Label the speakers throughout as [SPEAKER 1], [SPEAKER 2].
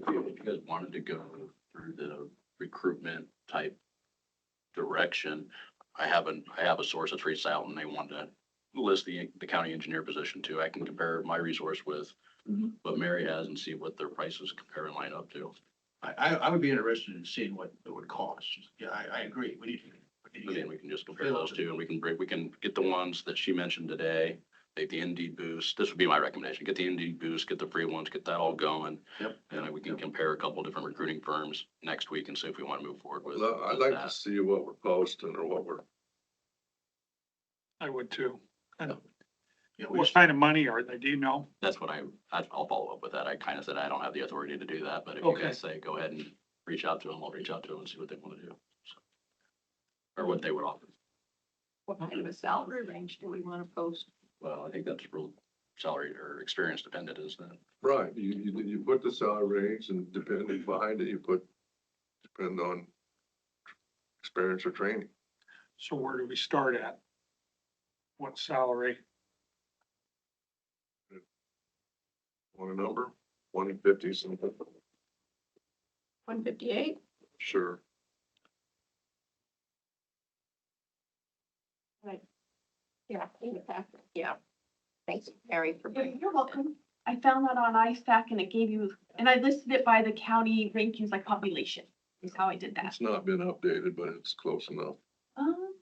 [SPEAKER 1] you guys wanted to go through the recruitment type direction, I have an, I have a source that's reached out and they want to list the, the county engineer position too. I can compare my resource with
[SPEAKER 2] Mm-hmm.
[SPEAKER 3] Mhm.
[SPEAKER 1] what Mary has and see what their prices compare and line up to.
[SPEAKER 2] I, I, I would be interested in seeing what it would cost. Yeah, I, I agree. We need, we need
[SPEAKER 1] And
[SPEAKER 2] to
[SPEAKER 1] then
[SPEAKER 2] get
[SPEAKER 1] we can just compare those two and we can break, we can get the ones that she mentioned today, take the Indeed boost. This would be my recommendation. Get the Indeed boost, get the free ones, get that all going.
[SPEAKER 2] Yep.
[SPEAKER 1] And then we can compare a couple different recruiting firms next week and see if we want to move forward with.
[SPEAKER 4] Well, I'd
[SPEAKER 1] with
[SPEAKER 4] like
[SPEAKER 1] that.
[SPEAKER 4] to see what we're posting or what we're,
[SPEAKER 5] I would too.
[SPEAKER 2] you know, we
[SPEAKER 5] What
[SPEAKER 2] just-
[SPEAKER 5] kind of money are they? Do you know?
[SPEAKER 1] That's what I, I- I'll follow up with that. I kind of said I don't have the authority to do that, but if you
[SPEAKER 5] Okay.
[SPEAKER 1] guys say, go ahead and reach out to them, I'll reach out to them and see what they want to do. so. Or what they would offer.
[SPEAKER 3] What kind of a salary range do we want to post?
[SPEAKER 1] Well, I think that's real salary or experience dependent, isn't it?
[SPEAKER 4] right, you, you, you put the salary range and depending behind it, you put, depend on experience or training.
[SPEAKER 5] So where do we start at? What salary?
[SPEAKER 4] Want a number? One fifty something,
[SPEAKER 3] One fifty-eight?
[SPEAKER 4] sure.
[SPEAKER 3] Yeah. In the packet. Yeah. Thanks, Mary, for
[SPEAKER 6] Yeah,
[SPEAKER 3] bringing.
[SPEAKER 6] You're welcome. I found that on ISAC and it gave you, and I listed it by the county rankings by population, is how I did that.
[SPEAKER 4] It's not been updated, but it's close enough.
[SPEAKER 6] Um,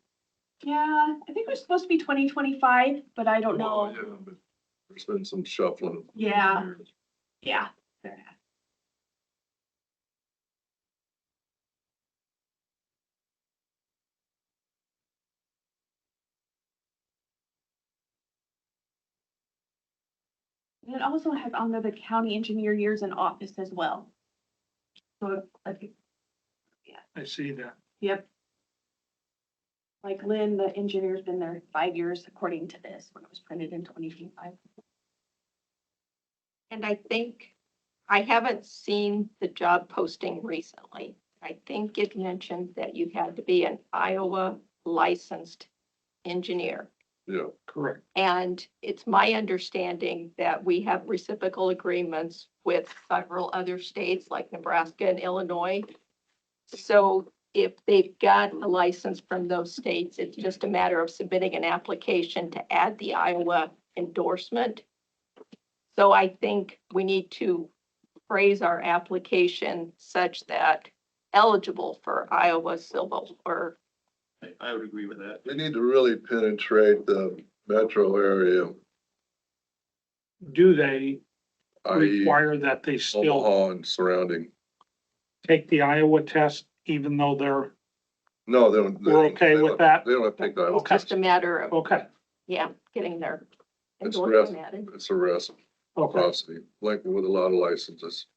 [SPEAKER 6] yeah, I think it was supposed to be twenty twenty-five, but I
[SPEAKER 5] Oh,
[SPEAKER 6] don't
[SPEAKER 4] Well,
[SPEAKER 6] know.
[SPEAKER 4] yeah, but There's been some shuffling.
[SPEAKER 6] Yeah, yeah. fair enough. And it also has on there the county engineer years in office as well. So like
[SPEAKER 5] I see that.
[SPEAKER 6] Yep. Like Lynn, the engineer's been there five years according to this, when it was printed in twenty twenty-five.
[SPEAKER 3] And I think, I haven't seen the job posting recently. I think it mentioned that you had to be an Iowa licensed engineer.
[SPEAKER 4] Yeah,
[SPEAKER 5] Correct.
[SPEAKER 3] And it's my understanding that we have reciprocal agreements with several other states like Nebraska and Illinois. So if they've got a license from those states, it's just a matter of submitting an application to add the Iowa endorsement. So I think we need to phrase our application such that eligible for Iowa civil or
[SPEAKER 2] I, I would agree with that.
[SPEAKER 4] we need to really penetrate the metro area,
[SPEAKER 5] Do they
[SPEAKER 4] i.e.
[SPEAKER 5] require that they still
[SPEAKER 4] e Omaha and surrounding.
[SPEAKER 5] take the Iowa test even though they're,
[SPEAKER 4] No, they don't. they
[SPEAKER 5] We're
[SPEAKER 4] don't-
[SPEAKER 5] okay
[SPEAKER 4] they
[SPEAKER 5] with
[SPEAKER 4] don't-
[SPEAKER 5] that?
[SPEAKER 4] They don't have to take that.
[SPEAKER 3] it's just a matter of,
[SPEAKER 5] okay,
[SPEAKER 3] yeah, getting their
[SPEAKER 4] That's
[SPEAKER 3] endorsement added.
[SPEAKER 4] It's a risk.
[SPEAKER 5] okay.
[SPEAKER 4] Reciprocity, like with a lot of licenses,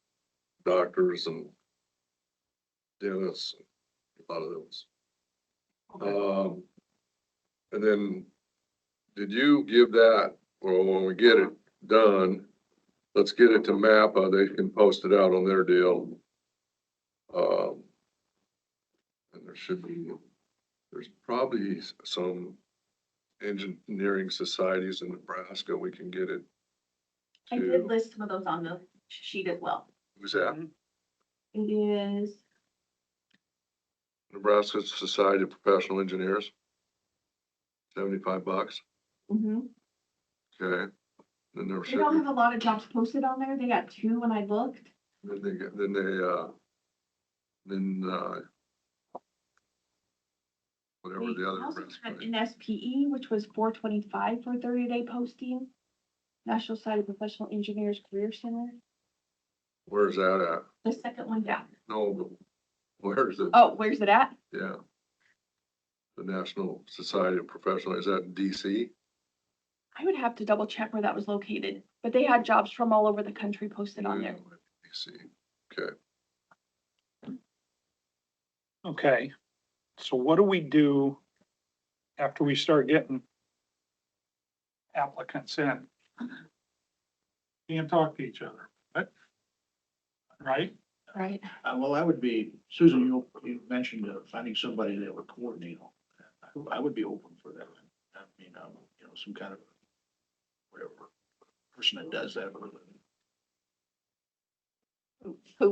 [SPEAKER 4] doctors and dentists, a lot of those.
[SPEAKER 5] okay.
[SPEAKER 4] Um, and then, did you give that, or when we get it done, let's get it to MAPPA, they can post it out on their deal. Um, and there should be, there's probably some engineering societies in Nebraska, we can get it
[SPEAKER 6] I did
[SPEAKER 4] to,
[SPEAKER 6] list some of those on the sheet as well.
[SPEAKER 4] who's that?
[SPEAKER 6] It is,
[SPEAKER 4] Nebraska Society of Professional Engineers. Seventy-five bucks,
[SPEAKER 6] mhm.
[SPEAKER 4] okay. Then there
[SPEAKER 6] they
[SPEAKER 4] should,
[SPEAKER 6] don't
[SPEAKER 4] be-
[SPEAKER 6] have a lot of jobs posted on there. They got two when I looked.
[SPEAKER 4] then they, get- then they, uh, then, uh, whatever
[SPEAKER 6] They
[SPEAKER 4] the other.
[SPEAKER 6] also
[SPEAKER 4] Nebraska
[SPEAKER 6] had
[SPEAKER 4] is.
[SPEAKER 6] NSPE, E, which was four twenty-five for thirty-day posting. National Society of Professional Engineers Career Center,
[SPEAKER 4] Where's that at?
[SPEAKER 6] the second one down.
[SPEAKER 4] No, but where's it?
[SPEAKER 6] Oh, where's it at?
[SPEAKER 4] Yeah. The National Society of Professional, is that in DC?
[SPEAKER 6] I would have to double check where that was located, but they had jobs from all over the country posted on there.
[SPEAKER 4] DC,
[SPEAKER 5] Okay, so what do we do after we start getting applicants in? Can't talk to each other, but, right?
[SPEAKER 3] Right.
[SPEAKER 2] Uh, well, I would be, Susan, you,
[SPEAKER 1] Mm-hmm.
[SPEAKER 2] you mentioned uh, finding somebody that would coordinate. all that. I I would be open for that. I mean, um, you know, some kind of whatever person that does that.
[SPEAKER 3] Who